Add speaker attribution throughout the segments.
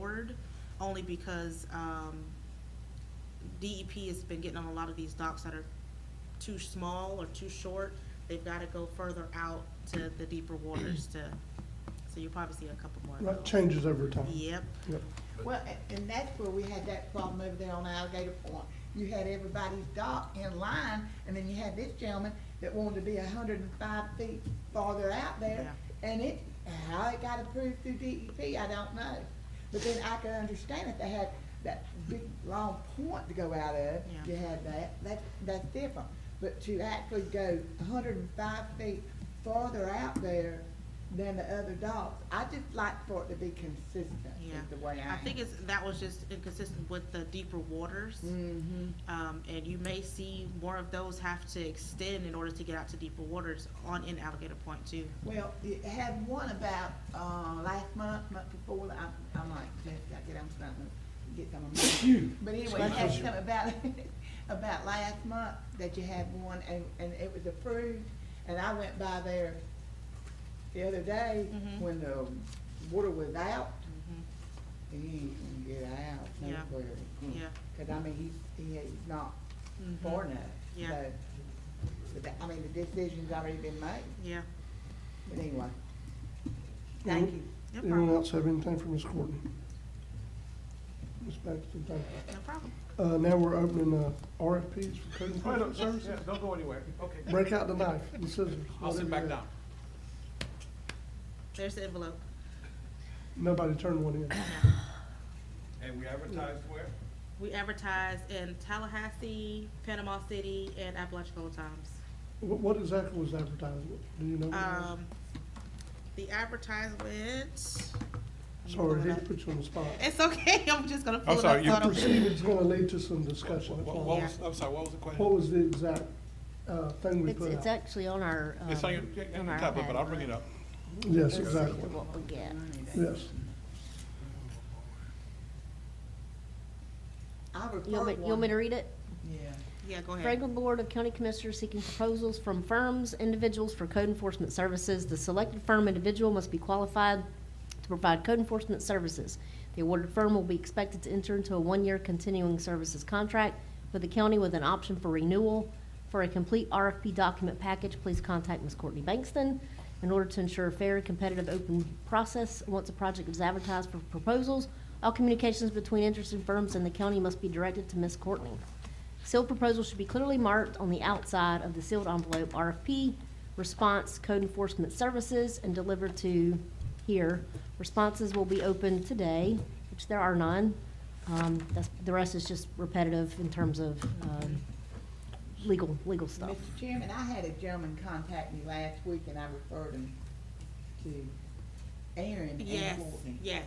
Speaker 1: third, only because, um, DEP has been getting on a lot of these docks that are too small or too short. They've gotta go further out to the deeper waters to, so you'll probably see a couple more of
Speaker 2: That
Speaker 1: those.
Speaker 2: changes over time.
Speaker 1: Yep,
Speaker 2: Yep.
Speaker 3: Well, a- and that's where we had that problem over there on Alligator Point. You had everybody's dock in line, and then you had this gentleman that wanted to be hundred and five feet farther out there. And it, how it got approved through DEP, I don't know. But then I could understand if they had that big, long point to go out of,
Speaker 1: Yeah.
Speaker 3: you had that, that, that's different. But to actually go hundred and five feet farther out there than the other docks, I just like for it to be consistent
Speaker 1: yeah.
Speaker 3: is the way I am.
Speaker 1: I think it's, that was just inconsistent with the deeper waters.
Speaker 3: Mm-hmm.
Speaker 1: Um, and you may see more of those have to extend in order to get out to deeper waters on in Alligator Point too.
Speaker 3: Well, you had one about, uh, last month, month before, I, I might, just, I get, I'm starting to get some of my. But anyway, you had
Speaker 2: Special.
Speaker 3: some about, about last month, that you had one, and, and it was approved, and I went by there the other day,
Speaker 1: Mhm.
Speaker 3: when the water was out, and you can get out, no
Speaker 1: Mm-hmm. Yeah.
Speaker 3: query.
Speaker 1: Yeah.
Speaker 3: Cause I mean, he, he is not
Speaker 1: Mhm.
Speaker 3: born enough,
Speaker 1: Yeah.
Speaker 3: so, but that- I mean, the decision's already been made.
Speaker 1: Yeah.
Speaker 3: But anyway, thank you.
Speaker 1: No
Speaker 2: Anyone
Speaker 1: problem.
Speaker 2: else have anything for Ms. Courtney? Ms. Paxton, thank you.
Speaker 1: No problem.
Speaker 2: Uh, now we're opening, uh, RFPs for code
Speaker 4: Right up,
Speaker 2: enforcement
Speaker 4: sir.
Speaker 2: services.
Speaker 4: Yeah, don't go anywhere. Okay.
Speaker 2: Break out the knife, the scissors.
Speaker 4: I'll
Speaker 2: whatever
Speaker 4: sit back
Speaker 2: you have.
Speaker 4: down.
Speaker 1: There's the envelope.
Speaker 2: Nobody turned one in.
Speaker 5: And we advertised where?
Speaker 1: We advertise in Tallahassee, Panama City, and Apalachicola Times.
Speaker 2: What, what exactly was advertised? Do you know? what it was?
Speaker 1: Um, the advertisement.
Speaker 2: Sorry, I
Speaker 1: Pull it
Speaker 2: hate to
Speaker 1: up.
Speaker 2: put you on the spot.
Speaker 1: It's okay. I'm just gonna pull it
Speaker 4: sorry,
Speaker 1: up.
Speaker 4: you
Speaker 1: so I don't-
Speaker 2: Proceed, it's gonna lead to some discussion. that's
Speaker 4: What
Speaker 2: all.
Speaker 4: what was, I'm sorry, what was the
Speaker 2: What
Speaker 4: question?
Speaker 2: was the exact, uh, thing we
Speaker 6: It's,
Speaker 2: put
Speaker 6: it's
Speaker 2: out?
Speaker 6: actually on our, um,
Speaker 4: It's on
Speaker 6: on
Speaker 4: your, yeah, on your
Speaker 6: our
Speaker 4: tablet, but I'll
Speaker 6: iPad.
Speaker 4: bring it up.
Speaker 2: Yes,
Speaker 6: Let's see
Speaker 2: exactly,
Speaker 6: What we get.
Speaker 2: yes.
Speaker 3: I referred
Speaker 6: You want me, you want me to read it?
Speaker 3: Yeah.
Speaker 1: Yeah, go ahead.
Speaker 6: Franklin Board of County Commissioners seeking proposals from firms, individuals for code enforcement services. The selected firm individual must be qualified to provide code enforcement services. The awarded firm will be expected to enter into a one-year continuing services contract with the county with an option for renewal. For a complete RFP document package, please contact Ms. Courtney Bankston. In order to ensure a fair, competitive, open process, once a project is advertised for proposals, all communications between interested firms and the county must be directed to Ms. Courtney. Sealed proposal should be clearly marked on the outside of the sealed envelope, RFP, response, code enforcement services, and delivered to here. Responses will be open today, which there are none. Um, that's, the rest is just repetitive in terms of, um, legal, legal
Speaker 3: Mr.
Speaker 6: stuff.
Speaker 3: Chairman, I had a gentleman contact me last week and I referred him to Aaron and
Speaker 1: Yes,
Speaker 3: Courtney.
Speaker 1: yes.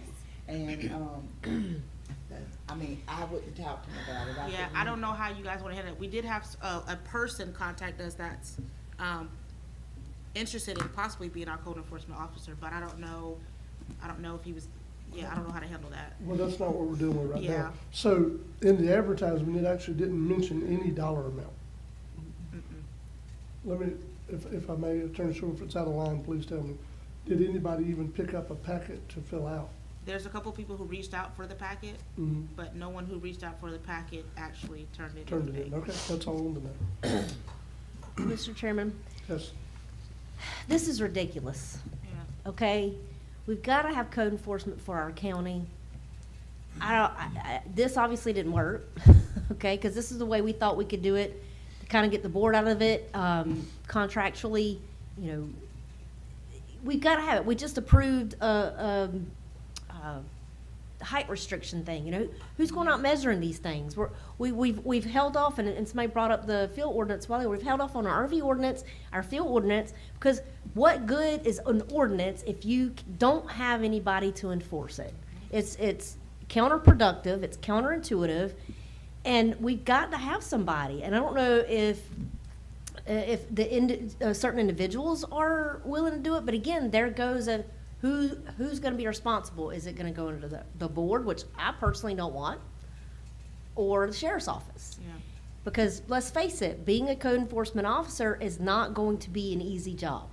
Speaker 3: And, um, I mean, I wouldn't talk to him about it.
Speaker 1: Yeah,
Speaker 3: couldn't
Speaker 1: I don't know how you guys wanna handle it. We did have s- uh, a, a person contact us that's, um, interested in possibly being our code enforcement officer, but I don't know, I don't know if he was, yeah, I don't know how to handle that.
Speaker 2: Well, that's not what we're dealing with right
Speaker 1: Yeah.
Speaker 2: now. So in the advertisement, it actually didn't mention any dollar amount. Let me, if, if I may, Attorney Short, if it's out of line, please tell me. Did anybody even pick up a packet to fill out?
Speaker 1: There's a couple people who reached out for the packet,
Speaker 2: Mhm.
Speaker 1: but no one who reached out for the packet actually turned in
Speaker 2: Turned it in,
Speaker 1: anything.
Speaker 2: okay, that's all I wanted to know.
Speaker 6: Mr. Chairman,
Speaker 2: Yes,
Speaker 6: this is ridiculous.
Speaker 1: Yeah.
Speaker 6: okay? We've got to have code enforcement for our county. I don't, I, I, this obviously didn't work, okay? Because this is the way we thought we could do it, to kind of get the board out of it, um, contractually, you know. We've got to have it. We just approved a, um, uh, height restriction thing, you know? Who's going out measuring these things? We're, we, we've, we've held off, and, and somebody brought up the field ordinance, well, we've held off on our RV ordinance, our field ordinance, because what good is an ordinance if you c- don't have anybody to enforce it? It's, it's counterproductive, it's counterintuitive, and we've got to have somebody, and I don't know if uh, if the ind- uh, certain individuals are willing to do it, but again, there goes a who who's going to be responsible? Is it going to go into the, the board, which I personally don't want, or the sheriff's office?
Speaker 1: Yeah.
Speaker 6: Because let's face it, being a code enforcement officer is not going to be an easy job,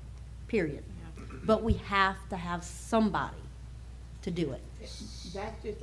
Speaker 6: period. But we have to have somebody to do it.
Speaker 3: That's just